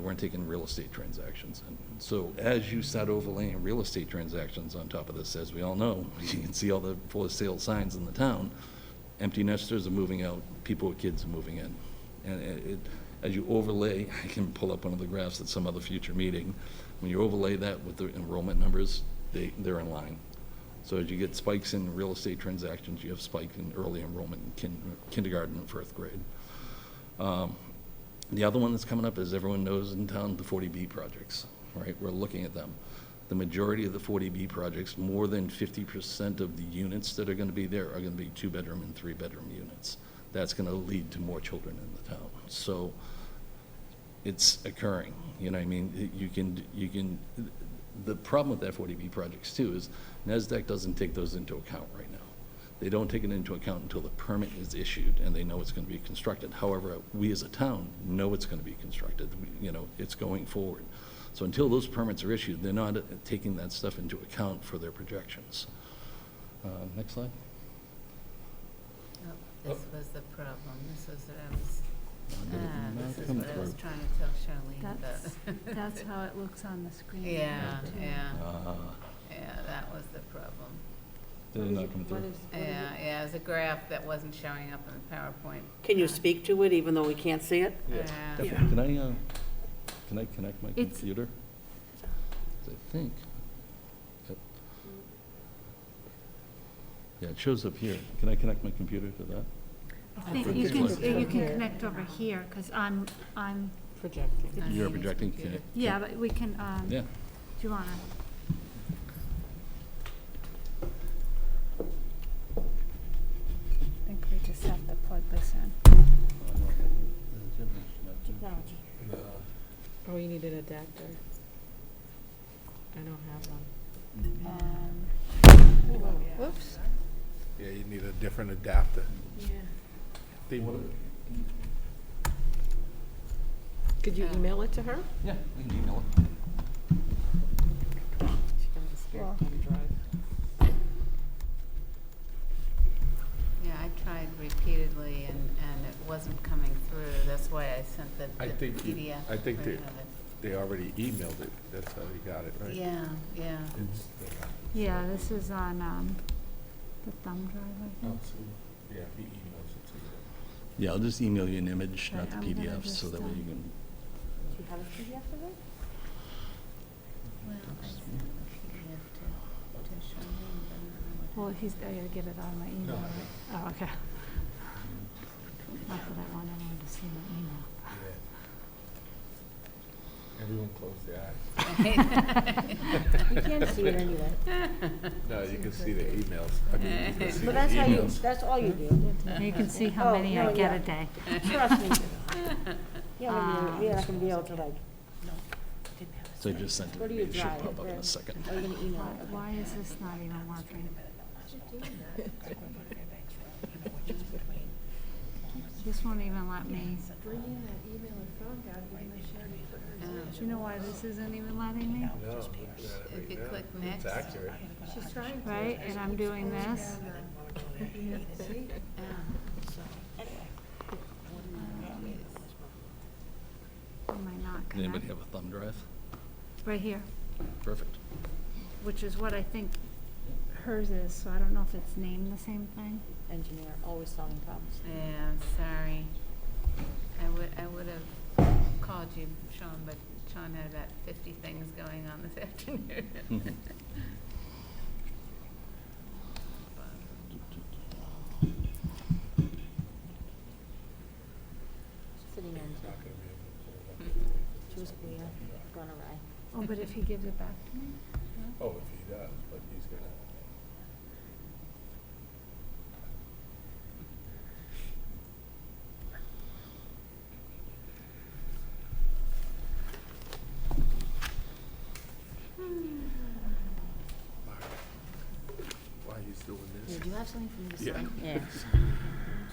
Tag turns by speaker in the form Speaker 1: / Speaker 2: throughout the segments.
Speaker 1: They weren't taking real estate transactions. And so as you start overlaying real estate transactions on top of this, as we all know, you can see all the for sale signs in the town. Empty nesters are moving out, people with kids are moving in. And it, it- as you overlay, I can pull up one of the graphs at some other future meeting. When you overlay that with the enrollment numbers, they, they're in line. So as you get spikes in real estate transactions, you have spike in early enrollment in kin- kindergarten and first grade. Um, The other one that's coming up, as everyone knows in town, the 40B projects, right? We're looking at them. The majority of the 40B projects, more than 50% of the units that are going to be there are going to be two-bedroom and three-bedroom units. That's going to lead to more children in the town. So it's occurring, you know what I mean? You can, you can, the problem with F40B projects too is NASDAQ doesn't take those into account right now. They don't take it into account until the permit is issued and they know it's going to be constructed. However, we as a town know it's going to be constructed, We- you know, it's going forward. So until those permits are issued, they're not uh, taking that stuff into account for their projections. Uh, Next slide.
Speaker 2: Oh, This was the problem, this was what I was,
Speaker 1: Where did it
Speaker 2: ah,
Speaker 1: not
Speaker 2: this is
Speaker 1: come
Speaker 2: what I was
Speaker 1: through?
Speaker 2: trying to tell Charlene
Speaker 3: That's,
Speaker 2: about.
Speaker 3: that's how it looks on the screen. now,
Speaker 2: Yeah,
Speaker 3: too.
Speaker 2: yeah,
Speaker 1: Ah,
Speaker 2: yeah, that was the problem.
Speaker 1: Did it not come
Speaker 3: What
Speaker 1: through?
Speaker 3: is- what is it?
Speaker 2: Yeah, yeah, it was a graph that wasn't showing up in the PowerPoint. Uh,
Speaker 4: Can you speak to it even though we can't see it?
Speaker 2: Yeah.
Speaker 1: Definitely. Can I, uh, can I connect my
Speaker 3: It's-
Speaker 1: computer? 'Cause I think. that- Yeah, it shows up here. Can I connect my computer to that?
Speaker 3: I think
Speaker 1: think
Speaker 3: you
Speaker 1: it's
Speaker 3: can,
Speaker 1: like-
Speaker 3: you can connect over here, because I'm, I'm,
Speaker 4: Projecting.
Speaker 2: I
Speaker 1: You're
Speaker 2: need his
Speaker 1: projecting, can
Speaker 2: computer.
Speaker 1: you-
Speaker 3: yeah, but we can, um, do
Speaker 1: Yeah.
Speaker 3: you wanna? I think we just have to plug this in. Technology.
Speaker 5: Oh, you need an adapter. I don't have one.
Speaker 3: Um, Oh, Whoops.
Speaker 6: Yeah, you need a different adapter.
Speaker 5: Yeah.
Speaker 6: They-
Speaker 5: Could you
Speaker 2: Yeah.
Speaker 5: email it to her?
Speaker 1: Yeah, we can email it.
Speaker 5: She can have a spare
Speaker 3: Well-
Speaker 5: thumb drive.
Speaker 2: Yeah, I tried repeatedly and, and it wasn't coming through, that's why I sent the
Speaker 6: I
Speaker 2: the
Speaker 6: think you-
Speaker 2: PDF.
Speaker 6: I think
Speaker 2: version
Speaker 6: they-
Speaker 2: of it.
Speaker 6: They already emailed it, that's how they got it, right?
Speaker 2: Yeah, yeah.
Speaker 6: It's-
Speaker 3: Yeah, this is on, um, the thumb drive, I
Speaker 6: Oh,
Speaker 3: think.
Speaker 6: so, Yeah, he emails it to you.
Speaker 1: Yeah, I'll just email you an image,
Speaker 3: Right,
Speaker 1: not the
Speaker 3: I'm gonna
Speaker 1: PDF, so
Speaker 3: just,
Speaker 1: that way
Speaker 3: um,
Speaker 1: you can.
Speaker 5: Do you have a PDF of it?
Speaker 2: Well, I sent the PDF to, to Charlene, but I don't know what
Speaker 3: Well,
Speaker 2: happened.
Speaker 3: he's, I gotta get it on my email.
Speaker 6: I
Speaker 3: right? Oh, okay. Not that I want anyone to see my email.
Speaker 6: Yeah. Everyone close their eyes.
Speaker 2: You
Speaker 4: can't see it anyway.
Speaker 6: No, you can see the emails. I mean, you can see the
Speaker 4: But that's how you,
Speaker 6: emails.
Speaker 4: that's all you do.
Speaker 3: You can see how
Speaker 4: Oh,
Speaker 3: many I
Speaker 4: no,
Speaker 3: get
Speaker 4: yeah.
Speaker 3: a day. Um,
Speaker 4: Trust me. You're not gonna be- you're not gonna be able to like,
Speaker 1: So I just sent it.
Speaker 4: Go to
Speaker 1: to me.
Speaker 4: your
Speaker 1: It should
Speaker 4: drive,
Speaker 1: pop up in
Speaker 4: then.
Speaker 1: a second.
Speaker 4: oh, you're gonna
Speaker 3: Why,
Speaker 4: email it.
Speaker 3: why is this not even working? This won't even let me. Do you know why this isn't even letting me?
Speaker 6: No, not right
Speaker 2: If you
Speaker 6: now.
Speaker 2: click
Speaker 6: It's
Speaker 2: next.
Speaker 6: accurate.
Speaker 3: Right, and I'm doing this? Um,
Speaker 2: Yeah.
Speaker 3: Am I not
Speaker 1: Does Anybody
Speaker 3: connected?
Speaker 1: have a thumb drive?
Speaker 3: Right here,
Speaker 1: Perfect.
Speaker 3: which is what I think hers is, so I don't know if it's named the same thing.
Speaker 4: Engineer, always solving problems.
Speaker 2: Yeah, I'm sorry. I would, I would have called you, Sean, but Sean had about fifty things going on this afternoon.
Speaker 4: Sitting in,
Speaker 6: Not gonna be able to pull it
Speaker 4: she was
Speaker 6: uh,
Speaker 4: queer, gone awry.
Speaker 3: Oh, but if he gives it back to me?
Speaker 6: up. Oh, if he does, but he's gonna. Mark, Why he's doing this?
Speaker 4: Do you have something for me to
Speaker 6: Yeah.
Speaker 4: sign? Yeah.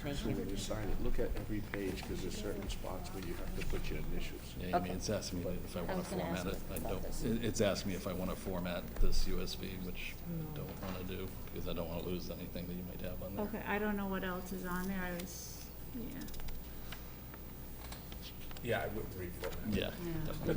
Speaker 4: Thank
Speaker 6: So
Speaker 4: you.
Speaker 6: when you sign it, look at every page, because there's certain spots where you have to put your initials.
Speaker 1: Yeah, I mean,
Speaker 4: Okay.
Speaker 1: it's asked me if I
Speaker 4: I
Speaker 1: want
Speaker 4: was
Speaker 1: to
Speaker 4: gonna ask
Speaker 1: format it.
Speaker 4: you
Speaker 1: I
Speaker 4: about
Speaker 1: don't,
Speaker 4: this.
Speaker 1: it- it's asked me if I want to format this USB, which I
Speaker 5: No.
Speaker 1: don't want to do, because I don't want to lose anything that you might have on there.
Speaker 3: Okay, I don't know what else is on there, I was, yeah.
Speaker 7: Yeah, I would read for that.
Speaker 1: Yeah.
Speaker 6: Yeah.
Speaker 1: definitely.